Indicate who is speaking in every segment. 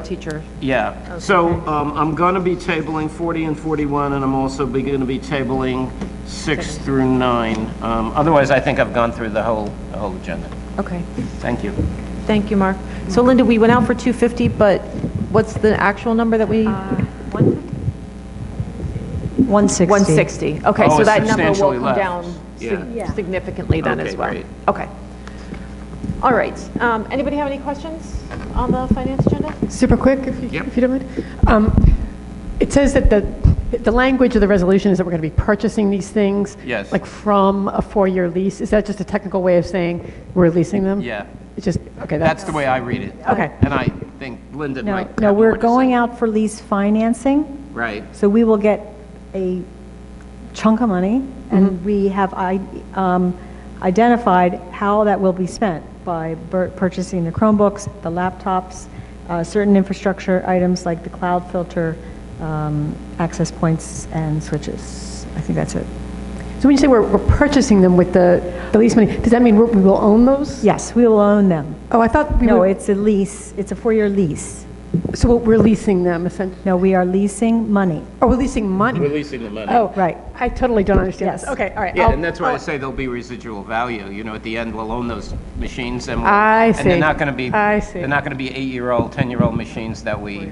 Speaker 1: the teacher.
Speaker 2: Yeah, so um, I'm going to be tabling 40 and 41, and I'm also going to be tabling 6 through 9. Um, Otherwise, I think I've gone through the whole, the whole agenda.
Speaker 1: Okay,
Speaker 2: Thank you.
Speaker 1: thank you, Mark. So Linda, we went out for 250, but what's the actual number that we?
Speaker 3: 160.
Speaker 1: 160. Okay,
Speaker 2: Oh,
Speaker 1: so
Speaker 2: it's
Speaker 1: that number will
Speaker 2: substantially
Speaker 1: come
Speaker 2: less.
Speaker 1: down
Speaker 2: Yeah.
Speaker 1: sig- significantly then
Speaker 2: Okay,
Speaker 1: as well.
Speaker 2: great.
Speaker 1: Okay. All right. Um, Anybody have any questions on the finance agenda?
Speaker 4: Super quick, if you
Speaker 2: Yep.
Speaker 4: if you don't mind. Um, It says that the, the language of the resolution is that we're going to be purchasing these things.
Speaker 2: Yes.
Speaker 4: Like from a four-year lease. Is that just a technical way of saying we're leasing them?
Speaker 2: Yeah.
Speaker 4: It's just, okay,
Speaker 2: That's
Speaker 4: that's,
Speaker 2: the way I read it.
Speaker 4: Okay.
Speaker 2: And I think Linda might.
Speaker 3: No,
Speaker 2: have
Speaker 3: no,
Speaker 2: more
Speaker 3: we're
Speaker 2: to say.
Speaker 3: going out for lease financing,
Speaker 2: Right,
Speaker 3: so we will get a chunk of money, and we have i- um, identified how that will be spent by bur- purchasing the Chromebooks, the laptops, uh, certain infrastructure items like the cloud filter, um, access points, and switches. I think that's it.
Speaker 4: so when you say we're, we're purchasing them with the, the lease money, does that mean we're- we will own those?
Speaker 3: Yes, we will own them.
Speaker 4: Oh, I thought we
Speaker 3: No,
Speaker 4: were,
Speaker 3: it's a lease, it's a four-year lease.
Speaker 4: so we're leasing them essentially.
Speaker 3: No, we are leasing money.
Speaker 4: Oh, we're leasing money?
Speaker 2: releasing the money.
Speaker 4: Oh.
Speaker 3: Right.
Speaker 4: I totally don't understand this.
Speaker 3: Yes.
Speaker 4: Okay, all right.
Speaker 2: Yeah,
Speaker 4: I'll-
Speaker 2: and that's why I
Speaker 4: I'll-
Speaker 2: say there'll be residual value, you know, at the end, we'll own those machines and. we'll-
Speaker 4: I
Speaker 2: And they're
Speaker 4: see.
Speaker 2: not going to be.
Speaker 4: I see.
Speaker 2: They're not going to be eight-year-old, 10-year-old machines that we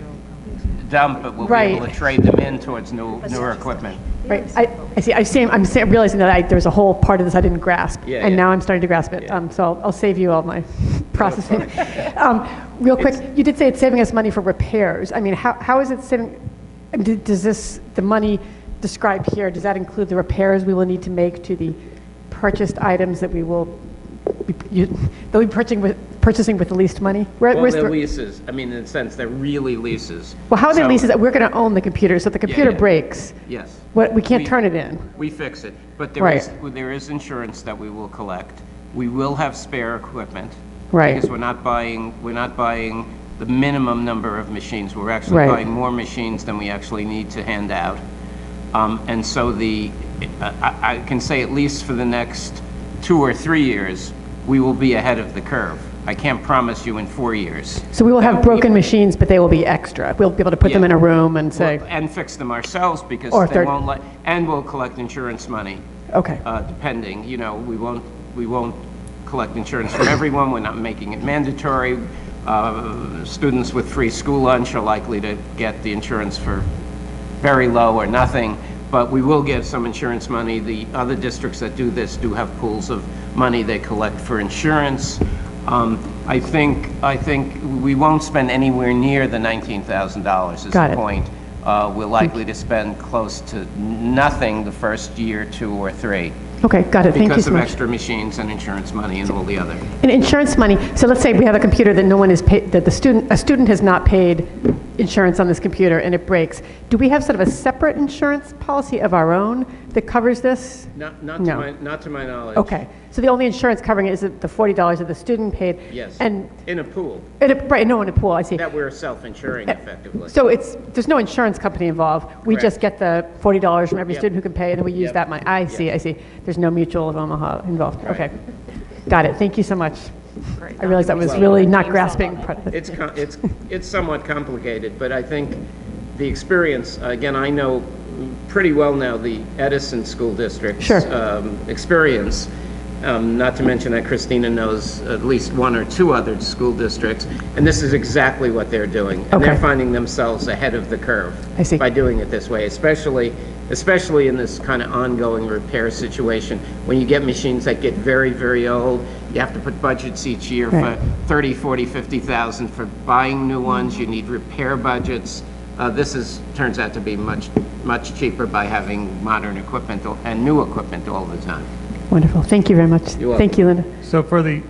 Speaker 2: dump, but we'll be able to
Speaker 4: Right.
Speaker 2: trade them in towards new, newer equipment.
Speaker 4: Right, I, I see, I see, I'm sa- realizing that I, there was a whole part of this I didn't grasp.
Speaker 2: Yeah,
Speaker 4: And
Speaker 2: yeah.
Speaker 4: now I'm starting to grasp it, um, so I'll- I'll save you all my processing. Um, Real quick, you did say it's saving us money for repairs. I mean, how, how is it saving, I mean, d- does this, the money described here, does that include the repairs we will need to make to the purchased items that we will, be- you- that we purchasing with, purchasing with the least money? Where-
Speaker 2: Well,
Speaker 4: where's
Speaker 2: they're
Speaker 4: the-
Speaker 2: leases, I mean, in a sense, they're really leases.
Speaker 4: Well, how are they
Speaker 2: So-
Speaker 4: leases, that we're going to own the computer, so if the computer
Speaker 2: yeah.
Speaker 4: breaks,
Speaker 2: Yes,
Speaker 4: what, we can't
Speaker 2: We-
Speaker 4: turn it in?
Speaker 2: we fix it, but there is,
Speaker 4: Right.
Speaker 2: well, there is insurance that we will collect. We will have spare equipment.
Speaker 4: Right.
Speaker 2: Because we're not buying, we're not buying the minimum number of machines. We're actually
Speaker 4: Right.
Speaker 2: buying more machines than we actually need to hand out. Um, And so the, I I can say at least for the next two or three years, we will be ahead of the curve. I can't promise you in four years.
Speaker 4: So we will have broken machines, but they will be extra. We'll be able to put them
Speaker 2: Yeah.
Speaker 4: in a room and say,
Speaker 2: Well, And fix them ourselves because
Speaker 4: Or
Speaker 2: they
Speaker 4: third-
Speaker 2: won't let, and we'll collect insurance money.
Speaker 4: Okay.
Speaker 2: Uh, Depending, you know, we won't, we won't collect insurance from everyone, we're not making it mandatory. Uh, Students with free school lunch are likely to get the insurance for very low or nothing, but we will get some insurance money. The other districts that do this do have pools of money they collect for insurance. Um, I think, I think we won't spend anywhere near the $19,000 is
Speaker 4: Got
Speaker 2: the
Speaker 4: it.
Speaker 2: point. Uh, We're likely to spend close to nothing the first year, two or three.
Speaker 4: okay, got it, thank you
Speaker 2: uh, Because
Speaker 4: so
Speaker 2: of
Speaker 4: much.
Speaker 2: extra machines and insurance money and all the other.
Speaker 4: And insurance money, so let's say we have a computer that no one is paid, that the student, a student has not paid insurance on this computer and it breaks. Do we have sort of a separate insurance policy of our own that covers this?
Speaker 2: Not, not to
Speaker 4: No.
Speaker 2: my, not to my knowledge.
Speaker 4: Okay, so the only insurance covering it is the $40 that the student paid?
Speaker 2: Yes.
Speaker 4: And,
Speaker 2: In a pool
Speaker 4: and it- right, no one in a pool, I see.
Speaker 2: that we're self-insuring effectively.
Speaker 4: Uh, So it's, there's no insurance company involved. We
Speaker 2: Correct.
Speaker 4: just get the $40 from every
Speaker 2: Yep.
Speaker 4: student who can pay, and then we use
Speaker 2: Yep.
Speaker 4: that money. I see, I see. There's no Mutual of Omaha involved. Okay. Got it. Thank you so much. I realized I was really not grasping. part of it.
Speaker 2: It's, co- it's, it's somewhat complicated, but I think the experience, again, I know pretty well now the Edison School District's
Speaker 4: Sure.
Speaker 2: um, experience, um, not to mention that Christina knows at least one or two other school districts, and this is exactly what they're doing. And they're
Speaker 4: Okay.
Speaker 2: finding themselves ahead of the curve.
Speaker 4: I see.
Speaker 2: By doing it this way, especially, especially in this kind of ongoing repair situation. When you get machines that get very, very old, you have to put budgets each year for
Speaker 4: Right.
Speaker 2: 30, 40, 50,000 for buying new ones, you need repair budgets. Uh, This is, turns out to be much, much cheaper by having modern equipment al- and new equipment all the time.
Speaker 4: Wonderful. Thank you very much.
Speaker 2: welcome.
Speaker 4: Thank you, Linda.
Speaker 5: So for the,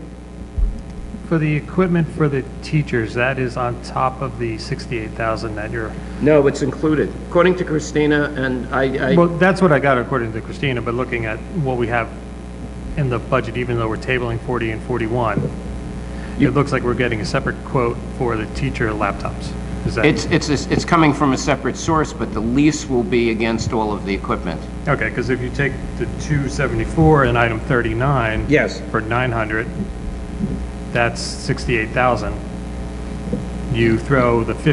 Speaker 5: for the equipment for the teachers, that is on top of the 68,000 that you're,
Speaker 2: No, it's included. According to Christina, and I, I-
Speaker 5: well, that's what I got according to Christina, but looking at what we have in the budget, even though we're tabling 40 and 41, it looks like we're getting a separate quote for the teacher laptops. Is that,
Speaker 2: it's, it's, it's coming from a separate source, but the lease will be against all of the equipment.
Speaker 5: okay, because if you take the 274 and item 39.
Speaker 2: Yes.
Speaker 5: For 900, that's 68,000. you throw the 50